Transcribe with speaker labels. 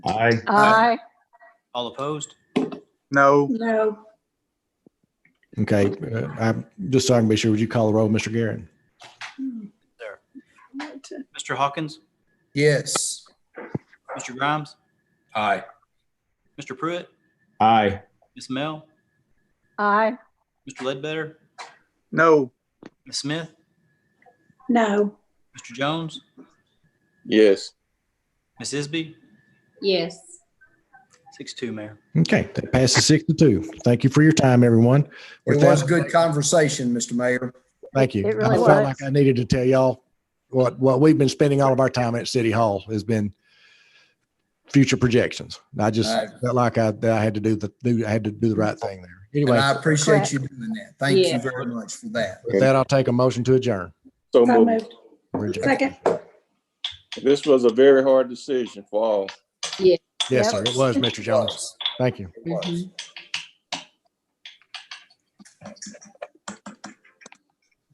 Speaker 1: Aye.
Speaker 2: Aye.
Speaker 3: All opposed?
Speaker 4: No,
Speaker 2: No.
Speaker 5: Okay, uh, I'm just trying to be sure, would you call the roll, Mr. Garrett?
Speaker 3: There. Mr. Hawkins?
Speaker 6: Yes.
Speaker 3: Mr. Grimes?
Speaker 1: Aye.
Speaker 3: Mr. Pruitt?
Speaker 1: Aye.
Speaker 3: Ms. Mel?
Speaker 2: Aye.
Speaker 3: Mr. Ledbetter?
Speaker 4: no,
Speaker 3: Ms. Smith?
Speaker 2: No.
Speaker 3: Mr. Jones?
Speaker 7: yes,
Speaker 3: Ms. Isby?
Speaker 2: Yes.
Speaker 3: Six two, Mayor.
Speaker 5: Okay, that passes six to two. Thank you for your time, everyone.
Speaker 6: It
Speaker 5: With
Speaker 6: was
Speaker 5: that-
Speaker 6: good conversation, Mr. Mayor.
Speaker 5: Thank you.
Speaker 2: It really
Speaker 5: I felt
Speaker 2: was.
Speaker 5: like I needed to tell y'all what, what we've been spending all of our time at City Hall has been future projections. I just
Speaker 6: All right.
Speaker 5: felt like I, that I had to do the, do, I had to do the right thing there.
Speaker 6: And I
Speaker 5: Anyway,
Speaker 6: appreciate
Speaker 2: Correct.
Speaker 6: you doing that. Thank you
Speaker 2: Yeah.
Speaker 6: very much for that.
Speaker 5: with that, I'll take a motion to adjourn.
Speaker 7: so
Speaker 2: So
Speaker 7: moved.
Speaker 2: moved.
Speaker 5: We're adjourned.
Speaker 2: Second.
Speaker 7: This was a very hard decision for all.
Speaker 5: Yes, sir,
Speaker 2: Yep.
Speaker 5: it was, Mr. Jones. Thank you.
Speaker 6: It was.